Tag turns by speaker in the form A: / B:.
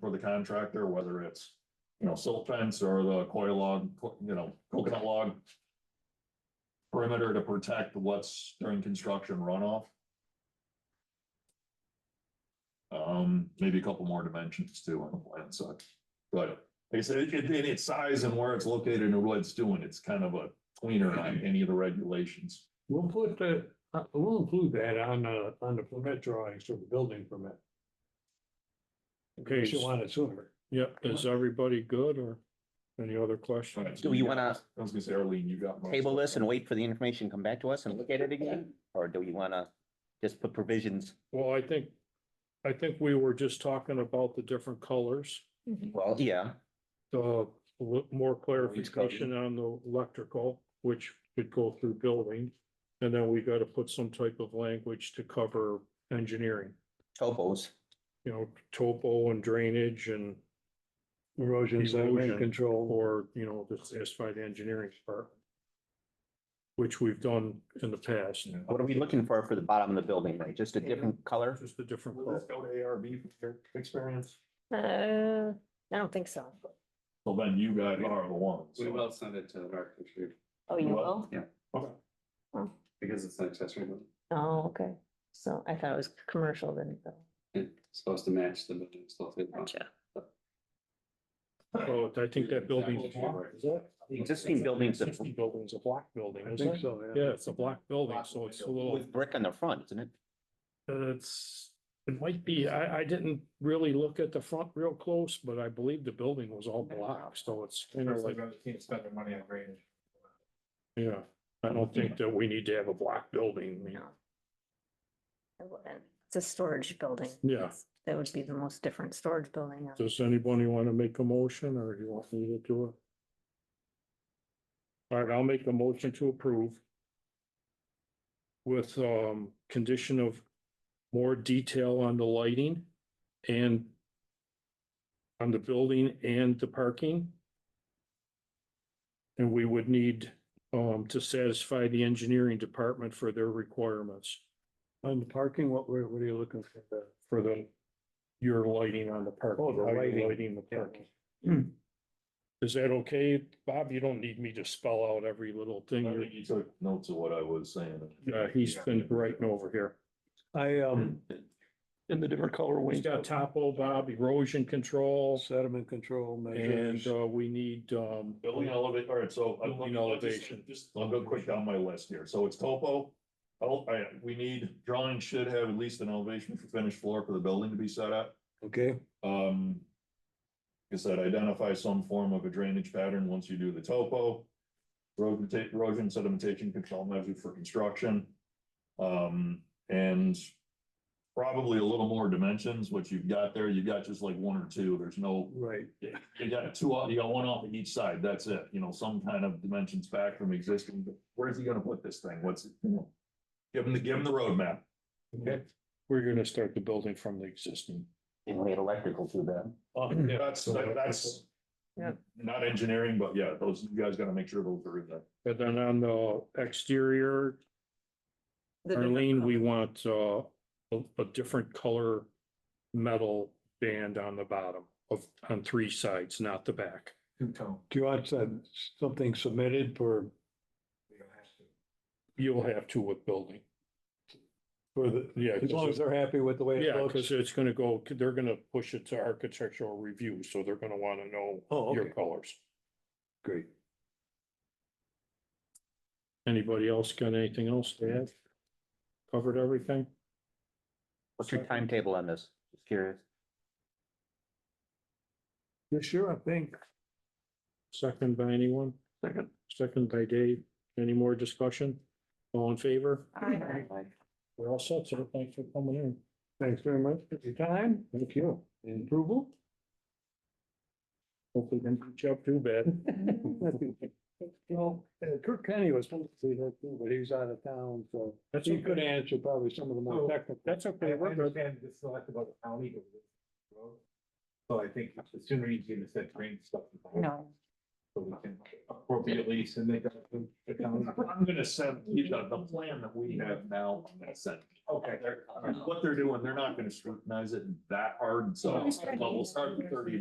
A: for the contractor, whether it's, you know, silt fence or the coil log, co- you know, coconut log perimeter to protect what's during construction runoff. Um, maybe a couple more dimensions too on the plan side, but like I said, it, it- in its size and where it's located and what it's doing, it's kind of a tweener on any of the regulations.
B: We'll put the, uh, we'll include that on, uh, on the permit drawings for the building permit.
C: Okay,
B: She'll want it sooner.
C: yeah, is everybody good or any other
A: All
C: questions?
A: right,
D: Do you
A: got-
D: wanna-
A: I was gonna say, Arlene, you got. most
D: table
A: of it.
D: this and wait for the information, to come back to us and look at it again? Or do you want to just put provisions?
C: Well, I think, I think we were just talking about the different colors,
D: Well, yeah,
C: the l- more
D: Each color.
C: clarification on the electrical, which could go through building. And then we gotta put some type of language to cover engineering,
D: topos.
C: you know, topo and drainage and,
B: Erosion, sediment
C: Erosion.
B: control.
C: or, you know, just satisfy the engineering part. Which we've done in the past,
A: Yeah.
D: What are we looking for for the bottom of the building, right? Just a different color?
C: just a different.
A: Will
C: color.
A: this go to ARB for your experience?
E: Uh, I don't think so.
A: Well, then you guys are the ones.
F: We will send it to the architecture
E: Oh, you
A: Well-
E: will?
F: because it's an accessory building.
E: Oh, okay. So I thought it was commercial then.
F: It's supposed to match the building. it's supposed to be-
C: Well, I think that building.
F: Exactly.
C: Is that?
D: The existing building's a-
C: Existing building's a block building,
B: I
C: isn't
B: think
C: it?
B: so,
C: Yeah, it's a block building, so it's a little, uh,
D: With brick on the front, isn't it?
C: it's, it might be, I, I didn't really look at the front real close, but I believe the building was all block, so it's kind of like,
G: Can't spend their money on drainage.
C: yeah. I don't think that we need to have a block building, you know.
E: I wouldn't. It's a storage building.
C: Yeah.
E: That would be the most different storage building.
C: Does anybody want to make a motion or you want me to do it? All right, I'll make a motion to approve. With um, condition of more detail on the lighting and. On the building and the parking. And we would need um, to satisfy the engineering department for their requirements
B: On the parking, what, were- what are you looking for? there?
C: for the. Your lighting on the parking.
B: Oh, the
C: how you're
B: lighting.
C: Lighting the parking. Is that okay? Bob, you don't need me to spell out every little
A: I
C: thing.
A: think
C: You're-
A: you took notes of what I was saying.
C: Uh, he's been writing over here.
B: I, um,
C: In the different color He's got topo, Bob, erosion control,
B: sediment control measures.
C: and, uh, we need, um,
A: Building elevation, all right, so. I'm
C: Building elevation.
A: Just, I'll go quick down my list here. So it's topo. Oh, I, we need, drawing should have at least an elevation for finished floor for the building to be set up.
B: Okay,
A: Um. Like I said, identify some form of a drainage pattern once you do the topo. Road ta- erosion sedimentation control measure for construction. Um, and. Probably a little more dimensions, which you've got there. You've got just like one or two. There's no,
B: right.
A: you got two, off- you got one off of each side. That's it. You know, some kind of dimensions back from existing. But Where's he gonna put this thing? What's? it, you know? Give him the, give him the roadmap.
C: we're gonna start the building from the existing.
D: And we had electrical through that.
A: That's, that's.
E: Yeah.
A: Not engineering, but yeah, those, you guys gotta make sure those are in there.
C: And then on the exterior, Arlene, we want, uh, a, a different color metal band on the bottom of, on three sides, not the back.
B: Do you want some- something submitted for,
C: You'll have to with building.
B: for the,
C: Yeah.
B: as long as they're happy with the way it
C: Yeah,
B: looks?
C: because it's gonna go, they're gonna push it to architectural review, so they're gonna wanna know
B: Oh,
C: your
B: okay,
C: colors.
B: great.
C: Anybody else got anything else to add? Covered everything?
D: What's your timetable on this? Just curious.
B: This year, I think.
C: Second by anyone? Second. Second by Dave. Any more discussion? All in favor?
E: Aye.
C: We're all set, sir. Thanks for coming in.
B: Thanks very much for your time.
C: Thank you. And approval? Hopefully didn't jump too bad.
B: Well, uh, Kirk Kenny was supposed to be here too, but he was out of town, so
C: That's
B: he could
C: okay. Oh,
B: answer probably some of the more
G: So-
B: technical.
C: That's
G: I
C: okay. We're good.
G: understand this is not about the county. but it's the road. So I think the sooner you get this, that green stuff. the better.
E: No,
G: so we can appropriately submit that to the county.
A: I'm gonna send you the, the plan that we have now, I'm gonna send.
G: Okay.
A: What they're doing, they're not gonna scrutinize it that hard, so, but we'll start with thirty